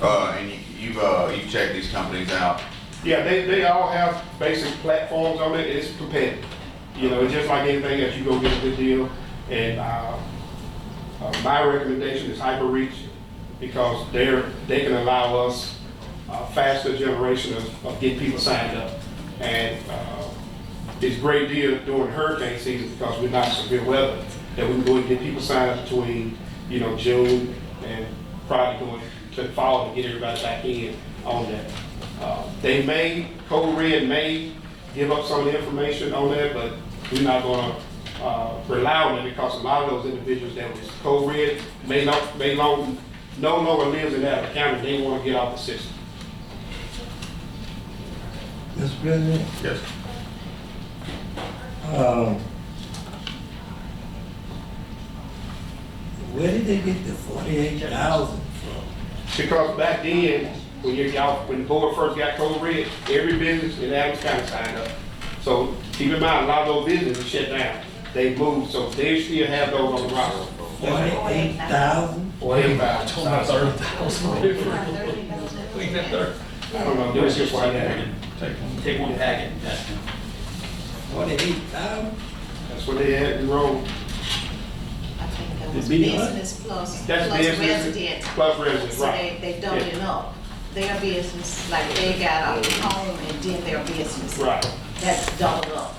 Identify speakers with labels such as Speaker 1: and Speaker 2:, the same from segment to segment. Speaker 1: Uh, and you, you've, uh, you've checked these companies out.
Speaker 2: Yeah, they, they all have basic platforms on it, it's competitive. You know, it's just like anything else, you go get a good deal, and, uh, uh, my recommendation is HyperReach, because they're, they can allow us a faster generation of, of getting people signed up. And, uh, it's a great deal during hurricane season, because we're not severe weather, that we can go and get people signed up between, you know, June and probably going to the fall to get everybody back in on that. Uh, They may, Code Red may give up some of the information on that, but we're not gonna uh, rely on it because a lot of those individuals that was Code Red may not, may long, no longer lives in that county, they wanna get off the system.
Speaker 3: Mr. President,
Speaker 1: Yes.
Speaker 3: um, where did they get the forty-eight thousand from?
Speaker 2: Because back then, when you, y'all, when the board first got Code Red, every business in Adams County signed up. So keep in mind, a lot of those businesses shut down, they moved, so they still have those on the roster.
Speaker 3: Forty-eight thousand?
Speaker 2: Or everybody
Speaker 4: Told my
Speaker 2: signed up.
Speaker 4: third thousand. We got third.
Speaker 2: I don't know, this is why that,
Speaker 1: Take one.
Speaker 4: Take one packet.
Speaker 3: Forty-eight thousand?
Speaker 2: that's what they had in Rome.
Speaker 5: I think that was
Speaker 3: The B what?
Speaker 5: business plus,
Speaker 2: That's
Speaker 5: plus
Speaker 2: business
Speaker 5: resident.
Speaker 2: plus resident,
Speaker 5: So
Speaker 2: right.
Speaker 5: they, they don't
Speaker 2: Yeah.
Speaker 5: know. Their business, like they got a home and then their business.
Speaker 2: Right.
Speaker 5: That's doubled up.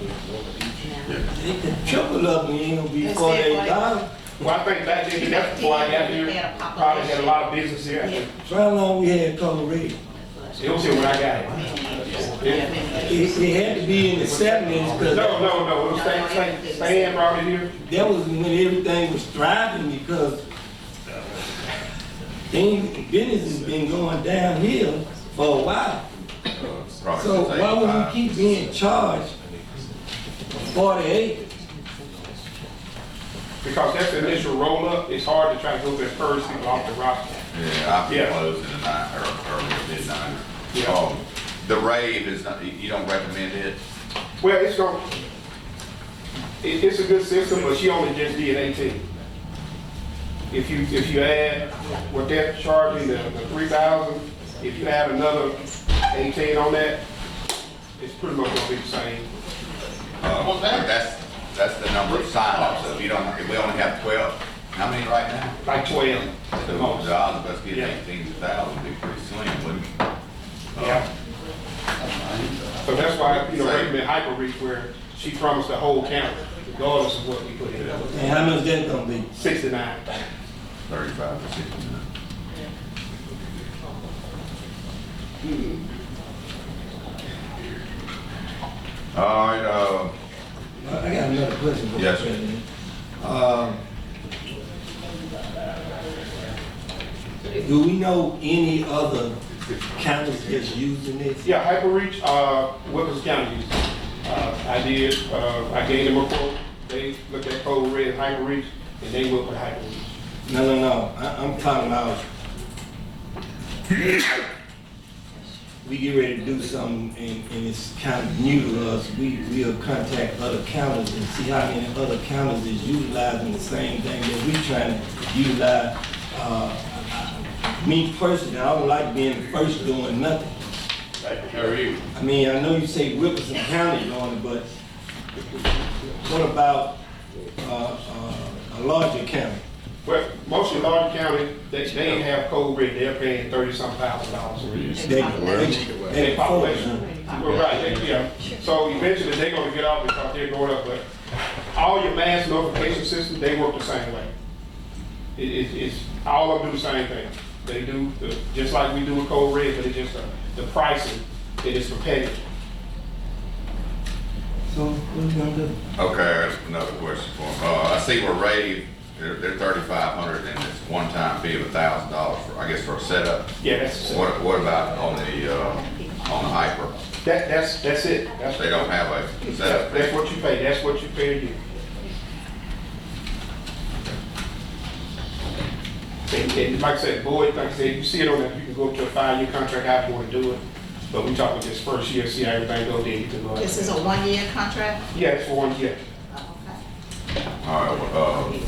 Speaker 1: Yeah.
Speaker 3: They could triple up and ain't gonna be
Speaker 5: They said
Speaker 3: forty-eight
Speaker 5: 48.
Speaker 3: thousand.
Speaker 2: Well, I think back then, that's before I got here, probably had a lot of business here. It
Speaker 3: So how long we had Colorado?
Speaker 2: was here when I got here.
Speaker 5: Yeah, many years.
Speaker 3: It, it had to be in the seventies,
Speaker 2: No,
Speaker 3: cause
Speaker 2: no, no, it was Stan, Stan, Stan brought it here.
Speaker 3: that was when everything was thriving because things, business has been going downhill for a while.
Speaker 1: Probably
Speaker 3: So
Speaker 1: since
Speaker 3: why would
Speaker 1: 85.
Speaker 3: we keep being charged forty-eight?
Speaker 2: Because that's the initial roll-up, it's hard to try to go there first, people off the roster.
Speaker 1: Yeah, I've been
Speaker 2: Yeah.
Speaker 1: closed in the night, or, or midnight.
Speaker 2: Yeah.
Speaker 1: Um, the rave is not, you- you don't recommend it?
Speaker 2: Well, it's gonna, it, it's a good system, but she only just did eighteen. If you, if you add what they're charging, the, the three thousand, if you add another eighteen on that, it's pretty much gonna be the same.
Speaker 1: Uh, but that's, that's the number of sign-ups, so if you don't, if we only have twelve, how many right now?
Speaker 2: like twelve at
Speaker 1: So
Speaker 2: the
Speaker 1: the
Speaker 2: most.
Speaker 1: odds of us getting
Speaker 2: Yeah.
Speaker 1: eighteen thousand would be pretty slim, wouldn't it?
Speaker 2: Yeah. So that's why, you know, recommend hyper reach where she promised the whole county, regardless of what we put in.
Speaker 3: And how much that gonna be?
Speaker 2: Sixty-nine.
Speaker 1: Thirty-five to sixty. All right, uh,
Speaker 3: I I got another question. Mr.
Speaker 1: Yes, sir.
Speaker 3: President. Um, Do we know any other counties that's using this?
Speaker 2: Yeah, Hyperreach, uh, Wilkins County used it. Uh, I did, uh, I gave them a quote, they looked at Code Red Hyperreach, and they went with Hyperreach.
Speaker 3: No, no, no, I, I'm talking about we get ready to do something and, and it's kind of new to us, we, we'll contact other counties and see how many other counties is utilizing the same thing that we trying to utilize. Uh, me personally, I don't like being the first doing nothing.
Speaker 2: How are you?
Speaker 3: I mean, I know you say Wilkerson County doing it, but what about, uh, uh, a larger county?
Speaker 2: Well, most of large county, they, they ain't have Code Red, they're paying thirty-some thousand dollars a year.
Speaker 3: They-
Speaker 5: Population.
Speaker 3: they-
Speaker 2: Their
Speaker 3: they-
Speaker 2: population. Well, right, they- yeah. So eventually, they're gonna get off because they're going up, but all your mass notification systems, they work the same way. It, it, it's, all of them do the same thing. They do, the- just like we do with Code Red, but it's just uh, the pricing, it is competitive.
Speaker 3: So what we gonna do?
Speaker 1: okay, that's another question for him. Uh, I see where Ray, they're, they're thirty-five hundred and it's one-time fee of a thousand dollars for, I guess, for a setup.
Speaker 2: Yeah, that's, that,
Speaker 1: What, what about on the, uh, on the hyper?
Speaker 2: that's, that's it. That's,
Speaker 1: They don't have a
Speaker 2: that's
Speaker 1: setup
Speaker 2: that's
Speaker 1: fee?
Speaker 2: what you pay, that's what you pay a year. And, and like I said, Boyd, like I said, you see it on that, you can go up to a five-year contract, how you wanna do it. But we talking this first year, see how everything go, then you can go.
Speaker 5: This is a one-year contract?
Speaker 2: Yeah, it's for one year.
Speaker 5: Oh, okay.
Speaker 1: All right, well, uh,